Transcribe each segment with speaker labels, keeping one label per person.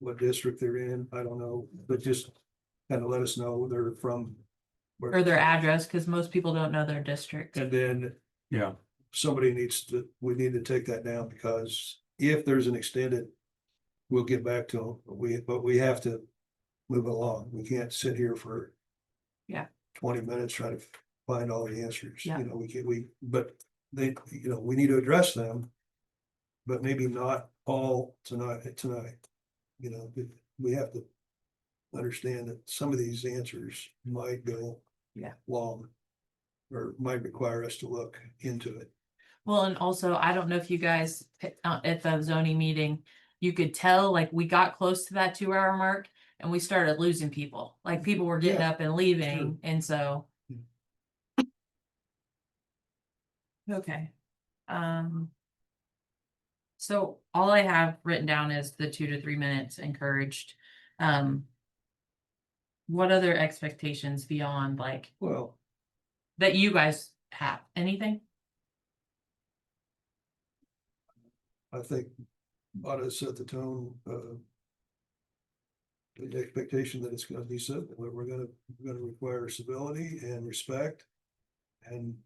Speaker 1: what district they're in, I don't know, but just kind of let us know they're from. where-
Speaker 2: or their address, because most people don't know their district.
Speaker 1: And then
Speaker 3: Yeah,
Speaker 1: somebody needs to, we need to take that down because if there's an extended, we'll get back to them, but we, but we have to move along. We can't sit here for
Speaker 2: Yeah.
Speaker 1: twenty minutes trying to find all the answers,
Speaker 2: Yeah.
Speaker 1: you know, we can, we, but they, you know, we need to address them. But maybe not all tonight, tonight, you know, we- we have to understand that some of these answers might go
Speaker 2: Yeah.
Speaker 1: long or might require us to look into it.
Speaker 2: Well, and also, I don't know if you guys, uh, at the zoning meeting, you could tell, like, we got close to that two hour mark and we started losing people. Like, people were getting
Speaker 1: Yeah,
Speaker 2: up and leaving, and so.
Speaker 1: Yeah.
Speaker 2: Okay, um. So all I have written down is the two to three minutes encouraged. Um. What other expectations beyond like
Speaker 1: Well,
Speaker 2: that you guys have? Anything?
Speaker 1: I think ought to set the tone, uh. The expectation that it's gonna be said, we're, we're gonna, we're gonna require civility and respect and.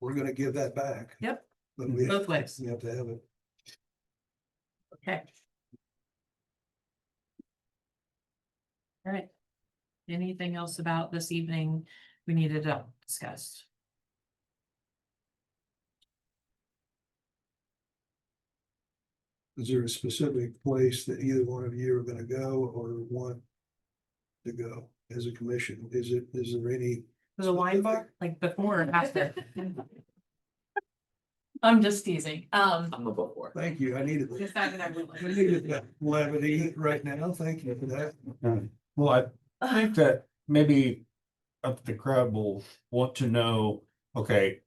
Speaker 1: We're gonna give that back.
Speaker 2: Yep.
Speaker 1: But we have
Speaker 2: Both ways.
Speaker 1: we have to have it.
Speaker 2: Okay. All right. Anything else about this evening we needed to discuss?
Speaker 1: Is there a specific place that either one of you are gonna go or want? To go as a commission? Is it, is there any?
Speaker 2: The wine bar, like before and after? I'm just teasing. Um,
Speaker 4: I'm a before.
Speaker 1: Thank you, I needed. that. I needed that levity right now. Thank you for that.
Speaker 3: well, I think that maybe up the crowd will want to know, okay,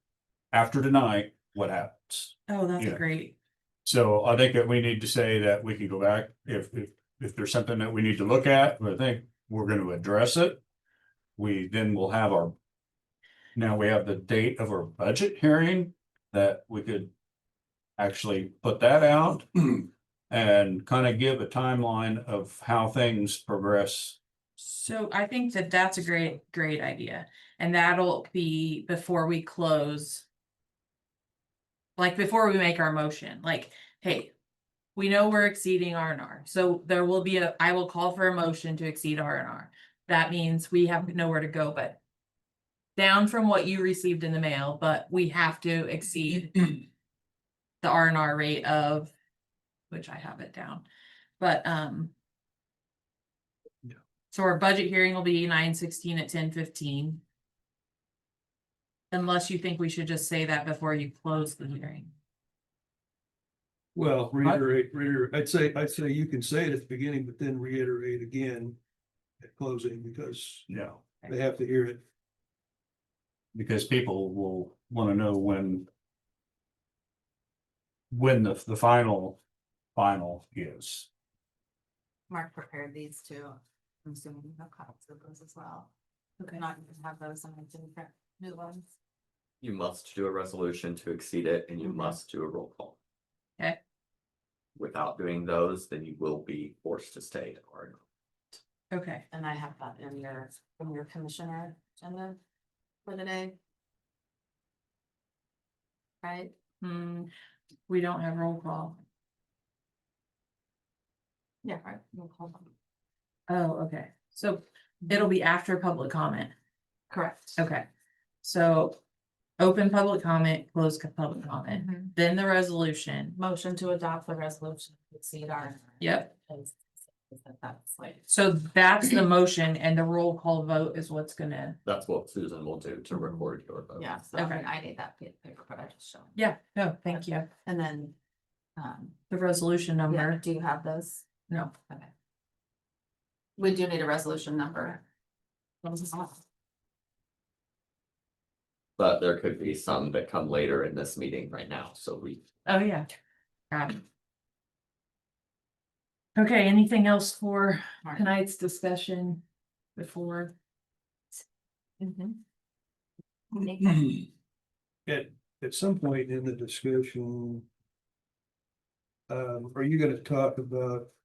Speaker 3: after tonight, what happens?
Speaker 2: oh, that's
Speaker 3: Yeah.
Speaker 2: great.
Speaker 3: So I think that we need to say that we can go back if, if, if there's something that we need to look at, but I think we're gonna address it. We then will have our, now we have the date of our budget hearing that we could actually put that out and kind of give a timeline of how things progress.
Speaker 2: So I think that that's a great, great idea. And that'll be before we close. Like before we make our motion, like, hey, we know we're exceeding R and R. So there will be a, I will call for a motion to exceed R and R. That means we have nowhere to go but down from what you received in the mail, but we have to exceed the R and R rate of, which I have it down, but, um, so our budget hearing will be nine sixteen at ten fifteen. Unless you think we should just say that before you close the hearing.
Speaker 1: Well, reiterate, reiterate, I'd say, I'd say you can say it at the beginning, but then reiterate again at closing because
Speaker 3: No.
Speaker 1: they have to hear it.
Speaker 3: Because people will wanna know when. When the, the final, final is.
Speaker 5: Mark prepared these two. I'm assuming you have copies of those as well.
Speaker 2: Okay.
Speaker 5: Not even have those on the different new ones.
Speaker 4: You must do a resolution to exceed it and you
Speaker 2: Mhm.
Speaker 4: must do a roll call.
Speaker 2: Okay.
Speaker 4: Without doing those, then you will be forced to stay to Oregon.
Speaker 2: Okay,
Speaker 5: And I have that in your, from your commissioner agenda for today. Right?
Speaker 2: hmm, we don't have roll call.
Speaker 5: Yeah. Right. We'll call them.
Speaker 2: Oh, okay, so
Speaker 5: Mm-hmm.
Speaker 2: it'll be after public comment.
Speaker 5: Correct.
Speaker 2: Okay, so open public comment, close co- public comment,
Speaker 5: Mhm.
Speaker 2: then the resolution.
Speaker 5: Motion to adopt the resolution to exceed our.
Speaker 2: Yep,
Speaker 5: Is- is that That's like,
Speaker 2: so that's the motion and the roll call vote is what's gonna,
Speaker 4: That's what Susan will do to record your vote.
Speaker 5: yeah, so I mean,
Speaker 2: Okay.
Speaker 5: I need that pa- paper, but I just show.
Speaker 2: yeah, no, thank you.
Speaker 5: And then, um,
Speaker 2: The resolution
Speaker 5: yeah,
Speaker 2: number,
Speaker 5: do you have those?
Speaker 2: no,
Speaker 5: Okay. We do need a resolution number.
Speaker 4: But there could be some that come later in this meeting right now, so we
Speaker 2: oh yeah. Got it. Okay, anything else for
Speaker 5: Mark.
Speaker 2: tonight's discussion before?
Speaker 5: Mm-hmm.
Speaker 1: At, at some point in the discussion, um, are you gonna talk about